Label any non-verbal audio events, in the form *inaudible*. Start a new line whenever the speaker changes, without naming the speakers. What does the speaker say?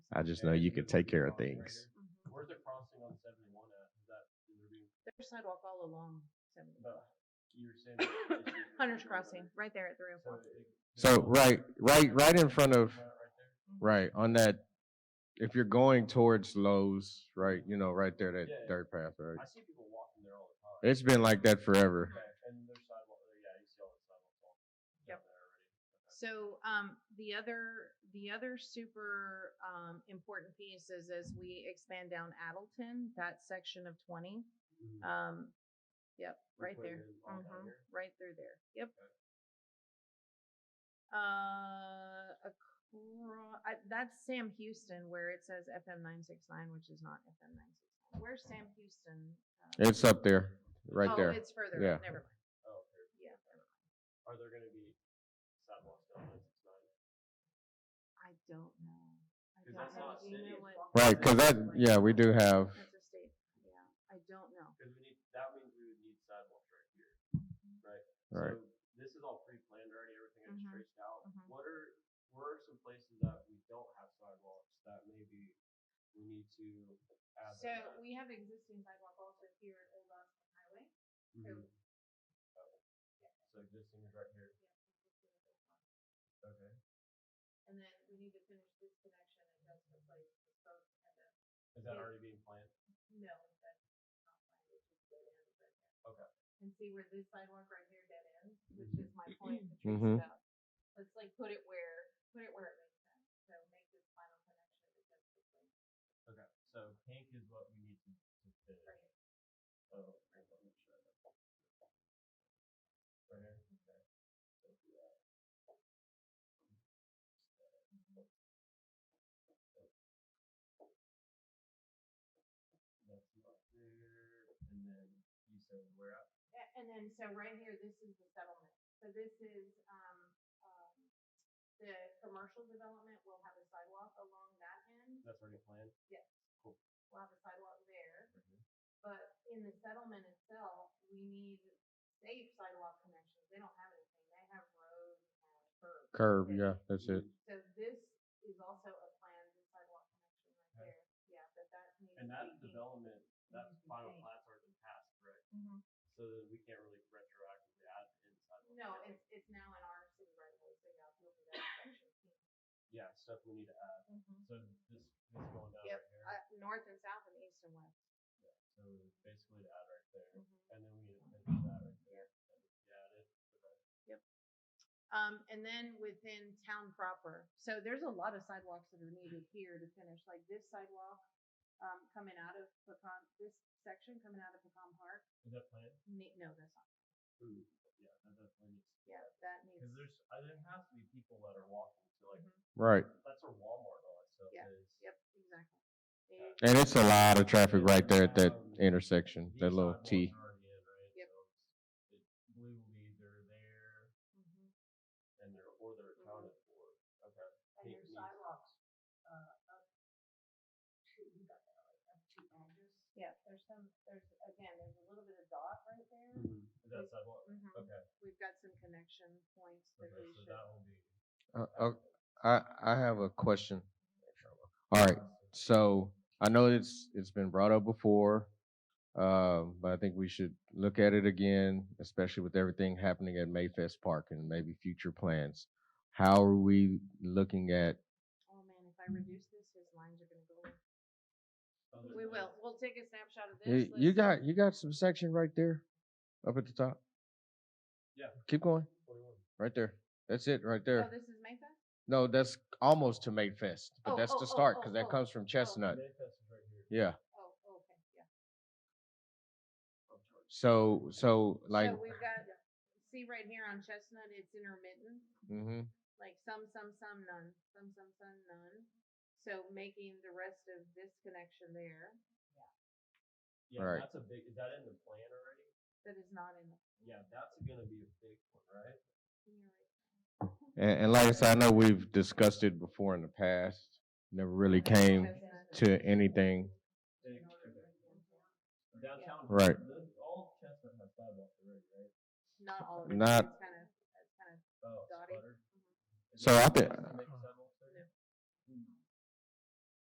I just know you can take care of things.
Mm-hmm.
Where's the crossing on seventy-one at? Is that, in Liberty?
There's sidewalk all along. 70. *coughs*
But you were saying. that it's-
Hunter's Crossing, right there at three oh
So
four.
it-
So right, right, right in front of,
Right there?
right on that. If you're going towards Lowe's, right, you know, right there, that
Yeah.
dirt path, right.
I see people walking there all the time.
It's been like that forever.
Okay, and there's sidewalk, uh, yeah, you see all the sidewalks walking. down
Yep.
there already.
So, um, the other, the other super, um, important piece is as we expand down Addleton, that section of twenty,
Mhm.
um, yep,
You're
right
putting
there.
it all down
hmm
here?
right through there, yep.
Okay.
Uh, acro- I, that's Sam Houston where it says FM nine six nine, which is not FM nine six nine. Where's Sam Houston? Uh,
It's up there, right
oh,
there.
It's further,
Yeah.
up, never mind,
Oh, okay.
yeah, never mind.
Are there gonna be sidewalks down nine six nine?
I don't know. I
'Cause
don't
that's
know. Do
not
you know
city.
what-
Right, because that, yeah, we do have.
That's a state, yeah, I don't know.
Cause we need, that means we would need sidewalks right here, right?
Right.
So This is all pre-planned already, everything I
Mhm.
just traced out.
Mhm.
What are, where are some places that we don't have sidewalks that maybe we need to add?
So
that?
we have existing sidewalk also here at Old Austin Highway.
Mhm. Okay. So existing is right here, okay.
And then we need to finish this connection and that's the place for both of them.
Is that
Yeah.
already being planned?
No, that's not mine, which is where it ends right there.
Okay.
And see where this sidewalk right here dead ends, which is my point that
Mhm.
Teresa about. Let's like put it where, put it where it makes sense. So make this final connection because it's like
Okay, so pink is what we need to, to finish.
right here.
Oh, okay, let me try that. Right here, okay. Let's do that. That's not there, and then you said we're at,
Yeah, and then, so right here, this is the settlement. So this is, um, um, the commercial development will have a sidewalk along that end.
that's already planned?
Yes.
Cool.
We'll have a sidewalk there,
Right here.
but in the settlement itself, we need safe sidewalk connections. They don't have anything. They have roads and curbs.
Curve,
That's it.
yeah, that's it.
So this is also a planned sidewalk connection right there. Yeah, but that needs.
And
to
that
be-
development, that
Mhm.
final plat's already passed, right?
Mhm.
So then we can't really retroactively add inside.
No, it's, it's now in our city right away, so yeah, you'll be *coughs* that section.
Yeah, stuff we need to add. So this, this going down
Yep,
right here.
Mm-hmm. Uh, north and south and east and west.
So basically to add right there,
Mhm.
and then we need to finish that right there. and Yeah, it is. Okay.
Um, and then within town proper, so there's a lot of sidewalks that are needed
Mm.
here to finish, like this sidewalk, um, coming out of Pecan, this section coming out of Pecan Park,
Is that planned?
ne- no, that's not,
Ooh, yeah, that definitely needs.
yeah, that needs.
Because there's, uh, there has to be people that are walking to like,
Mhm.
Right.
that's where Walmart and all that stuff
Yeah,
is.
Yep, exactly.
Yeah.
They-
And it's a lot of traffic right there at that intersection, that
These
little
sidewalks
T.
are already in, right?
Yep.
So it's- It will be either there
Mhm.
and they're, or they're
Mhm.
accounted for. Okay.
And
Pink
your
needs-
sidewalks, uh, up to, you got that right, up to Andrews? Yeah, there's some, there's, again, there's a little bit of dot right there.
Mm-hmm. Is that sidewalk?
Mhm.
Okay,
We've got some connection points that
okay,
we
so
should.
that will be.
Uh, uh, I, I have a question. All right. So I know it's, it's been brought up before. Um, but I think we should look at it again, especially with everything happening at Mayfest Park and maybe future plans. How are we looking at,
Oh, man, if I reduce this, his lines are gonna go. away.
Other
We
than-
will, we'll take a snapshot of
you
this.
eh, you
let's-
got, you got some section right there up at the top?
Yeah.
Keep going,
21.
right there. That's it, right
Oh,
there.
this is Mayfair?
No, that's almost to Mayfest, but
Oh,
that's
oh,
the
oh,
start
oh,
because
oh.
that comes from Chestnut.
Mayfest is right here.
Yeah.
Oh, oh, okay, yeah.
Up charge.
So, so like,
So we've got, see right here on Chestnut, it's intermittent,
mhm,
like some, some, some, none, some, some, some, none. So making the rest of this connection there,
Yeah,
Right.
that's a big. Is that in the plan already?
that is not in the.
Yeah, that's gonna be a big one, right?
you're right.
and, and like I said, I know we've discussed it before in the past. Never really came
Chestnut.
to anything.
Big. Downtown.
Right.
the- All Chestnut has sidewalks already, right?
Not all of it.
Not-
It's kind of, it's mm-hmm. kind of,
Oh,
Dotty.
sputter. Is
So
there
I think-
sidewalks that make sidewalks there?
No.
Hmm.